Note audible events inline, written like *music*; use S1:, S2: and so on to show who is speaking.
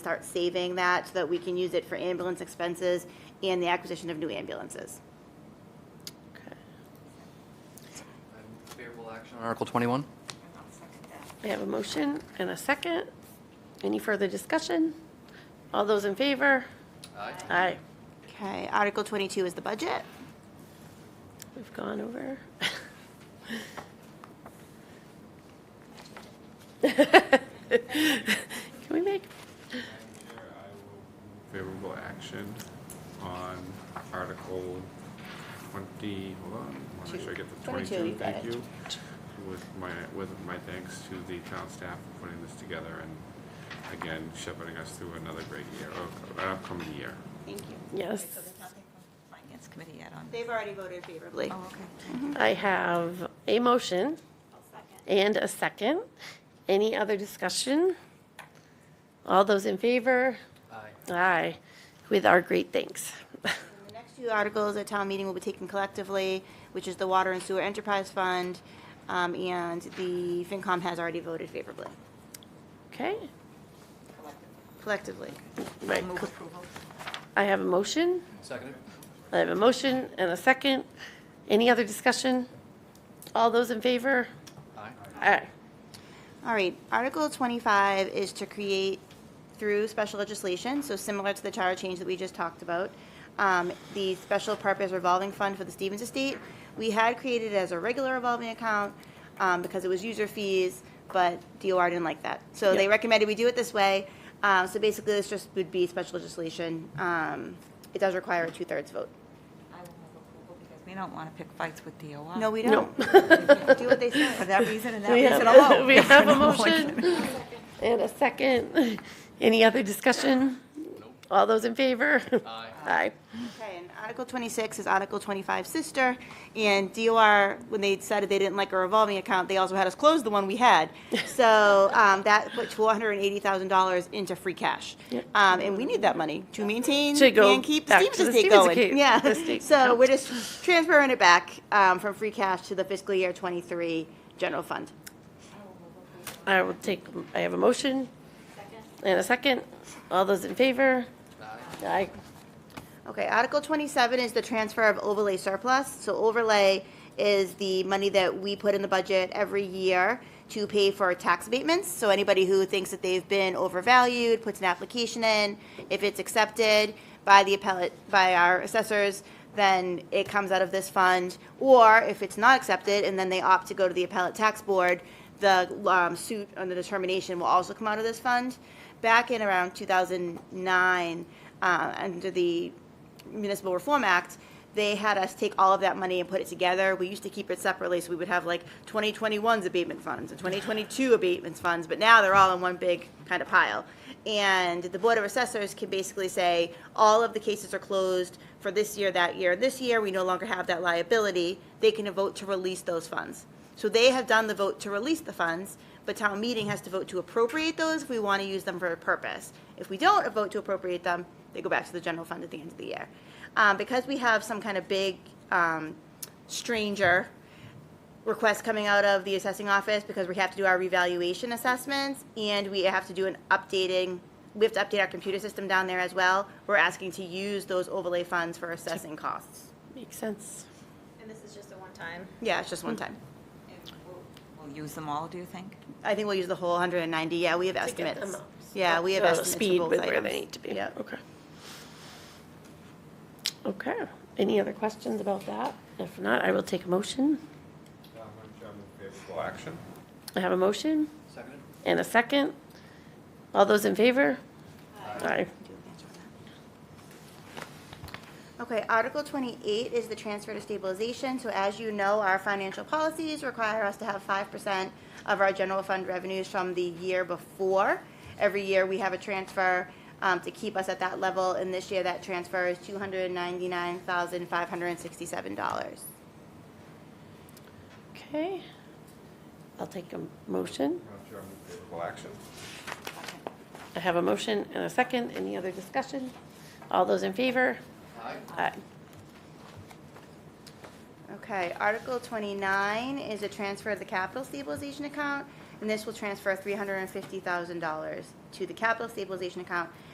S1: start saving that so that we can use it for ambulance expenses and the acquisition of new ambulances.
S2: Okay.
S3: Favorable action on Article 21?
S2: We have a motion and a second. Any further discussion? All those in favor?
S3: Aye.
S2: Aye.
S1: Okay, Article 22 is the budget.
S2: We've gone over. *laughs* Can we make,
S4: favorable action on Article 20, hold on, I want to make sure I get the
S1: 22,
S4: 22,
S1: you got
S4: thank
S1: it.
S4: you. With my, with my thanks to the town staff for putting this together and again shepherding us through another great year, of- an upcoming year.
S1: Thank you.
S2: yes,
S5: So there's nothing from Finance Committee yet on?
S1: They've already voted favorably.
S5: Oh, okay.
S2: I have a motion and a second. Any other discussion? All those in favor?
S3: Aye.
S2: Aye, with our great thanks. *laughs*
S1: The next two articles at town meeting will be taken collectively, which is the Water and Sewer Enterprise Fund, um, and the FinCom has already voted favorably,
S2: Okay,
S1: collectively.
S2: right,
S5: Move approval.
S2: I have a motion.
S3: Seconded?
S2: I have a motion and a second. Any other discussion? All those in favor?
S3: Aye.
S2: Aye.
S1: All right, Article 25 is to create through special legislation, so similar to the charter change that we just talked about, um, the special purpose revolving fund for the Stevens Estate. We had created it as a regular revolving account um, because it was user fees, but DOR didn't like that. So they
S2: Yeah.
S1: recommended we do it this way. Uh, So basically, this just would be special legislation. Um, It does require a two-thirds vote.
S5: I will move approval because we don't want to pick fights with DOR.
S1: No, we
S2: No.
S1: don't. *laughs* Do what they say.
S5: For that reason and that
S2: We *laughs*
S5: reason
S2: have
S5: alone.
S2: we
S1: *laughs*
S2: have a motion and a second. Any other discussion? All those in favor?
S3: Aye.
S2: Aye.
S1: Okay, and Article 26 is Article 25 sister, and DOR, when they decided they didn't like a revolving account, they also had us close the one we had.
S2: *laughs*
S1: So um, that put $480,000 into free cash.
S2: Yep.
S1: Um, And we need that money to maintain
S2: To go
S1: and keep the
S2: back
S1: Stevens
S2: to the
S1: Estate
S2: Stevens
S1: going.
S2: account,
S1: Yeah,
S2: the state
S1: so
S2: account.
S1: we're just transferring it back um, from free cash to the fiscal year '23 general fund.
S2: I will take, I have a motion and a second. All those in favor? Aye.
S1: Okay, Article 27 is the transfer of overlay surplus. So overlay is the money that we put in the budget every year to pay for tax abatements. So anybody who thinks that they've been overvalued puts an application in. If it's accepted by the appellate, by our assessors, then it comes out of this fund. Or if it's not accepted and then they opt to go to the appellate tax board, the um, suit on the determination will also come out of this fund. Back in around 2009, uh, under the Municipal Reform Act, they had us take all of that money and put it together. We used to keep it separately, so we would have like 2021's abatement funds and 2022 abatements funds, but now they're all in one big kind of pile. And the Board of Assessors can basically say, all of the cases are closed for this year, that year, and this year, we no longer have that liability. They can vote to release those funds. So they have done the vote to release the funds, but town meeting has to vote to appropriate those if we want to use them for a purpose. If we don't vote to appropriate them, they go back to the general fund at the end of the year. Um, because we have some kind of big, um, stranger requests coming out of the assessing office because we have to do our revaluation assessments and we have to do an updating, we have to update our computer system down there as well. We're asking to use those overlay funds for assessing costs.
S2: Makes sense.
S6: And this is just a one-time?
S1: Yeah, it's just one time.
S5: We'll use them all, do you think?
S1: I think we'll use the whole 190, yeah, we have
S2: To get them
S1: estimates.
S2: up.
S1: Yeah, we have
S2: Uh,
S1: estimates for
S2: Speed
S1: both
S2: with
S1: items.
S2: where they need to be.
S1: Yeah.
S2: Okay. Okay. Any other questions about that? If not, I will take a motion.
S4: Favorable action?
S2: I have a motion
S3: Seconded?
S2: and a second. All those in favor? Aye.
S1: Okay, Article 28 is the transfer to stabilization. So as you know, our financial policies require us to have 5% of our general fund revenues from the year before. Every year, we have a transfer um, to keep us at that level, and this year, that transfer is $299,567.
S2: Okay. I'll take a motion.
S4: Favorable action?
S2: I have a motion and a second. Any other discussion? All those in favor?
S3: Aye.
S2: Aye.
S1: Okay, Article 29 is a transfer of the capital stabilization account and this will transfer $350,000 to the capital stabilization account